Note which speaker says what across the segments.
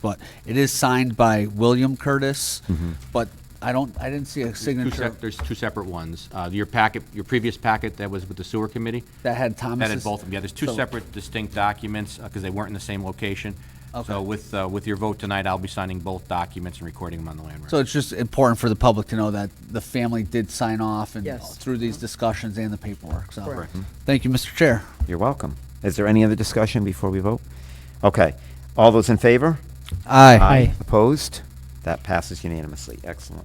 Speaker 1: But it is signed by William Curtis, but I don't, I didn't see a
Speaker 2: Two sep-
Speaker 1: signature
Speaker 2: There's two separate ones. Uh, Your packet, your previous packet that was with the sewer committee,
Speaker 1: that had Thomas's.
Speaker 2: that had both of them. Yeah, there's two
Speaker 1: So-
Speaker 2: separate distinct documents because they weren't in the same location.
Speaker 1: Okay.
Speaker 2: So with, uh, with your vote tonight, I'll be signing both documents and recording them on the land
Speaker 1: So
Speaker 2: record.
Speaker 1: it's just important for the public to know that the family did sign off and
Speaker 3: Yes. Mm-hmm.
Speaker 1: through these discussions and the paperwork, so.
Speaker 3: Correct.
Speaker 2: Mm-hmm.
Speaker 1: Thank you, Mr. Chair.
Speaker 4: You're welcome. Is there any other discussion before we vote? Okay. All those in favor?
Speaker 1: Aye.
Speaker 4: Opposed? That passes unanimously. Excellent.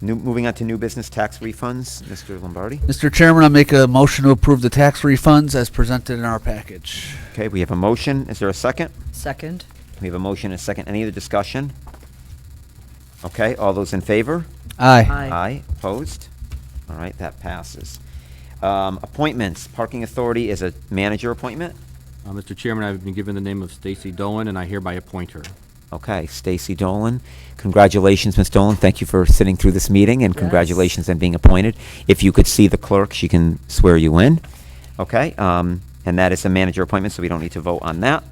Speaker 4: New, moving on to new business tax refunds, Mr. Lombardi.
Speaker 1: Mr. Chairman, I make a motion to approve the tax refunds as presented in our package.
Speaker 4: Okay, we have a motion. Is there a second?
Speaker 3: Second?
Speaker 4: We have a motion and a second. Any other discussion? Okay, all those in favor?
Speaker 1: Aye.
Speaker 3: Aye.
Speaker 4: Aye. Opposed? All right, that passes. Um, appointments. Parking Authority is a manager appointment.
Speaker 2: Uh, Mr. Chairman, I've been given the name of Stacy Dolan, and I hereby appoint her.
Speaker 4: Okay, Stacy Dolan. Congratulations, Ms. Dolan. Thank you for sitting through this meeting, and
Speaker 3: Yes.
Speaker 4: congratulations on being appointed. If you could see the clerk, she can swear you in. Okay, um, and that is a manager appointment, so we don't need to vote on that.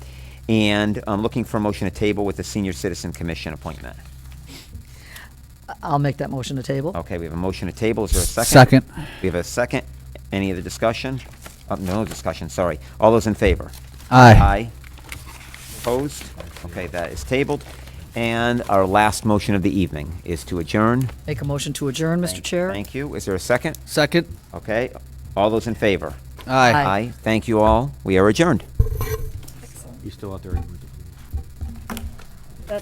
Speaker 4: And I'm looking for a motion to table with the Senior Citizen Commission appointment.
Speaker 3: I'll make that motion to table.
Speaker 4: Okay, we have a motion to table. Is there a second?
Speaker 1: Second.
Speaker 4: We have a second. Any other discussion? Uh, No discussion, sorry. All those in favor?
Speaker 1: Aye.
Speaker 4: Opposed? Okay, that is tabled. And our last motion of the evening is to adjourn.
Speaker 3: Make a motion to adjourn, Mr.
Speaker 4: Thank-
Speaker 3: Chair?
Speaker 4: Thank you. Is there a second?
Speaker 1: Second?
Speaker 4: Okay. All those in favor?
Speaker 1: Aye.
Speaker 3: Aye.
Speaker 4: Thank you all. We are adjourned.
Speaker 2: You still out there?